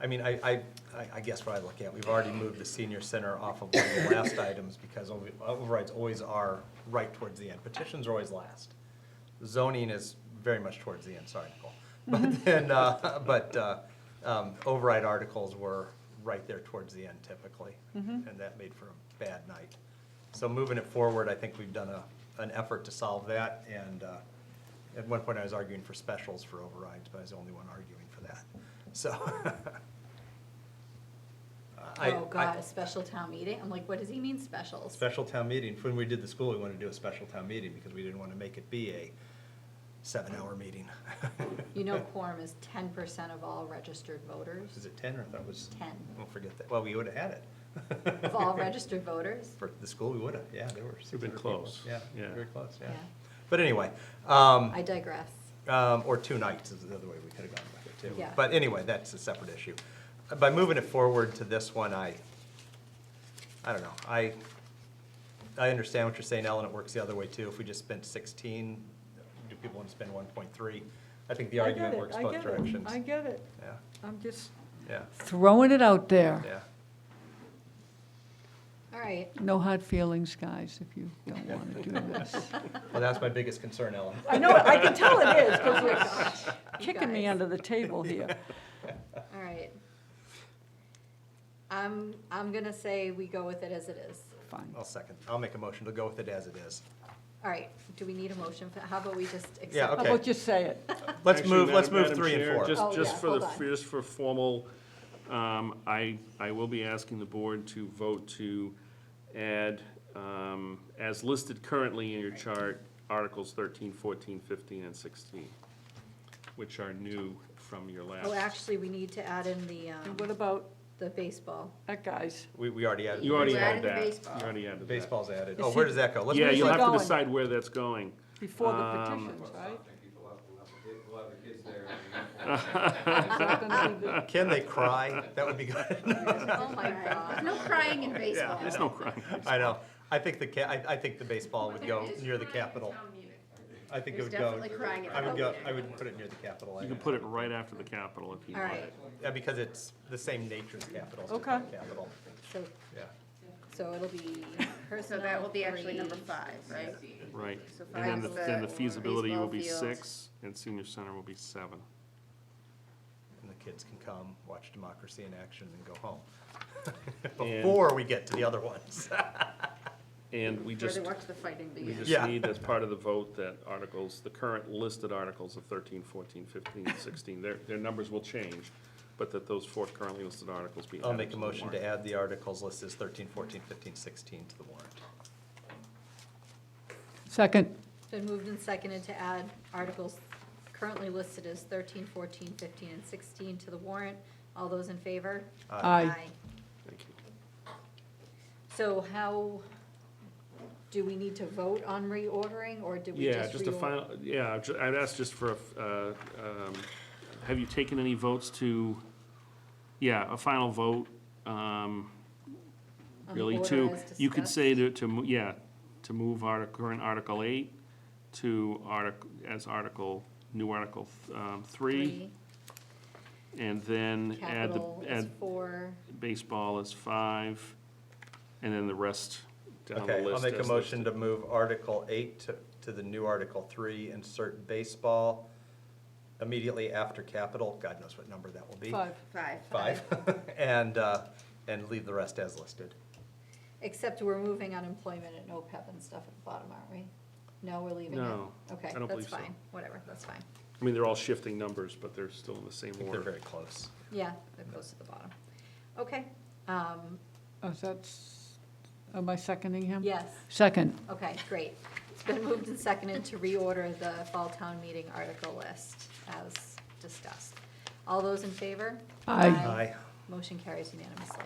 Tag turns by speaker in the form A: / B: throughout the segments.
A: I mean, I, I, I- I guess what I look at, we've already moved the senior center off of one of the last items because over- overrides always are right towards the end. Petitions are always last. Zoning is very much towards the end, sorry, Nicole. But then, uh, but, uh, um, override articles were right there towards the end typically. And that made for a bad night. So moving it forward, I think we've done a, an effort to solve that and, uh, at one point I was arguing for specials for overrides, but I was the only one arguing for that, so. I-
B: Oh,
A: I-
B: God, a special town meeting? I'm like, what does he mean specials?
A: Special town meeting, when we did the school, we wanted to do a special town meeting because we didn't want to make it be a seven-hour meeting.
B: You know quorum is ten percent of all registered voters?
A: Is it ten or I thought it was?
B: 10.
A: Don't forget that, well, we would have had it.
B: Of all registered voters?
A: For the school, we would have, yeah, there were six
C: been
A: hundred people.
C: close,
A: Yeah,
C: yeah.
A: very close, yeah.
B: Yeah.
A: But anyway, um.
B: I digress.
A: Um, or two nights is the other way we could have gone with it too.
B: Yeah.
A: But anyway, that's a separate issue. By moving it forward to this one, I, I don't know, I, I understand what you're saying, Ellen, it works the other way too. If we just spent sixteen, do people want to spend one point three? I think the
D: I get
A: argument
D: it,
A: works
D: I
A: both
D: get it,
A: directions.
D: I get it.
A: Yeah,
D: I'm just
A: yeah,
D: throwing it out there.
A: yeah.
B: All right.
D: No hard feelings, guys, if you don't want to do this.
A: Well, that's my biggest concern, Ellen.
D: I know, I can tell it is, because
B: Oh my
D: you're
B: gosh, you
D: kicking me
B: guys.
D: under the table here.
B: All right. I'm, I'm gonna say we go with it as it is.
D: Fine.
A: I'll second, I'll make a motion to go with it as it is.
B: All right, do we need a motion for, how about we just accept?
A: Yeah,
D: How
A: okay.
D: about you say it?
A: Let's
C: Actually,
A: move, let's
C: Madam-
A: move
C: Madam
A: three and
C: Chair,
A: four.
B: Oh,
C: Just,
B: yeah,
C: just for the,
B: hold on.
C: just for formal, um, I, I will be asking the board to vote to add, um, as listed currently in your chart, Articles 13, 14, 15, and 16, which are new from your last.
B: Oh, actually, we need to add in the,
D: And what
B: um,
D: about
B: the baseball.
D: that guy's?
A: We, we already added.
C: You already
B: We're
C: had
B: adding the
C: that.
B: baseball.
C: You already added that.
A: Baseball's added.
D: You
A: Oh, where
D: see-
A: does that go? Let's
C: Yeah,
A: move
C: you'll
A: it.
C: have
D: going.
C: to decide where that's going.
D: Before the
C: Um,
D: petitions, right?
E: People up, we'll have the kids, we'll have the kids there.
D: Is that gonna be the-
A: Can they cry? That would be good.
B: Oh, my God.
F: No crying in
C: Yeah,
F: baseball.
C: there's no crime.
A: I know. I think the ca, I, I think the baseball would go near the Capitol. I think it
F: There's
A: would go.
F: definitely crying at
A: I would
F: town
A: go,
F: meeting.
A: I would put it near the Capitol.
C: You can put it right after the Capitol if you
B: All
C: want.
B: right,
A: Yeah, because it's the same nature as Capitol. it's just
D: Okay.
A: not Capitol,
B: so,
A: yeah.
B: so it'll be
F: So
B: personnel.
F: that will be actually number
B: three.
F: five, right?
C: Right,
F: So
C: and then the,
F: five's
C: then the
F: the
C: feasibility will
F: baseball
C: be
F: field.
C: six, and senior center will be seven.
A: And the kids can come, watch democracy in action and go home. Before we get to the other ones.
C: And we
F: Where
C: just,
F: they watch the fighting
C: we
F: begin.
A: Yeah.
C: just need as part of the vote that articles, the current listed articles of 13, 14, 15, and 16, their, their numbers will change, but that those four currently listed articles be added
A: I'll make
C: to
A: a
C: the
A: motion to
C: warrant.
A: add the articles listed as 13, 14, 15, 16 to the warrant.
D: Second,
B: Been moved and seconded to add articles currently listed as 13, 14, 15, and 16 to the warrant. All those in favor?
D: Aye.
C: Thank you.
B: So how, do we need to vote on reordering, or do we just
C: Yeah, just a
B: reor-
C: final, yeah, I'd ju- I'd ask just for, a, uh, um, have you taken any votes to, yeah, a final vote, um,
B: on the
C: really
B: order
C: to,
B: as
C: you could
B: discussed?
C: say to, to, mo- yeah, to move our current Article eight to artic, as Article, new Article, um, three, and then add
B: Capital
C: the,
B: is
C: add
B: four.
C: baseball as five, and then the rest down the list.
A: Okay, I'll make a
C: as
A: motion
C: listed.
A: to move Article 8 to- to the new Article 3, insert baseball immediately after capital, God knows what number that will be.
D: five.
F: Five.
A: Five, and, uh, and leave the rest as listed.
B: Except we're moving unemployment and OPEB and stuff at the bottom, aren't we? No, we're leaving it?
C: No,
B: Okay,
C: I don't
B: that's
C: believe so.
B: fine, whatever, that's fine.
C: I mean, they're all shifting numbers, but they're still in the same
A: I think they're
C: order.
A: very close.
B: Yeah, they're close to the bottom. Okay, um,
D: Oh, is that, s- am I seconding him?
B: yes.
D: Second,
B: Okay, great. It's been moved and seconded to reorder the fall town meeting article list as discussed. All those in favor?
D: Aye.
A: Aye.
B: Motion carries unanimously.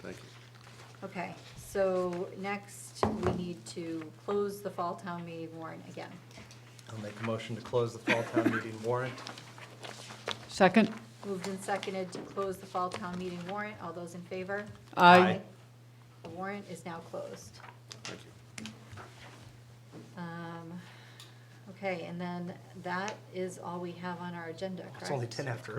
C: Thank you.
B: Okay, so next, we need to close the fall town meeting warrant again.
A: I'll make a motion to close the fall town meeting warrant.
D: second,
B: Moved and seconded to close the fall town meeting warrant. All those in favor?
D: aye.
B: The warrant is now closed.
C: Thank you.
B: Um, Okay, and then that is all we have on our agenda, correct?
A: It's only 10 after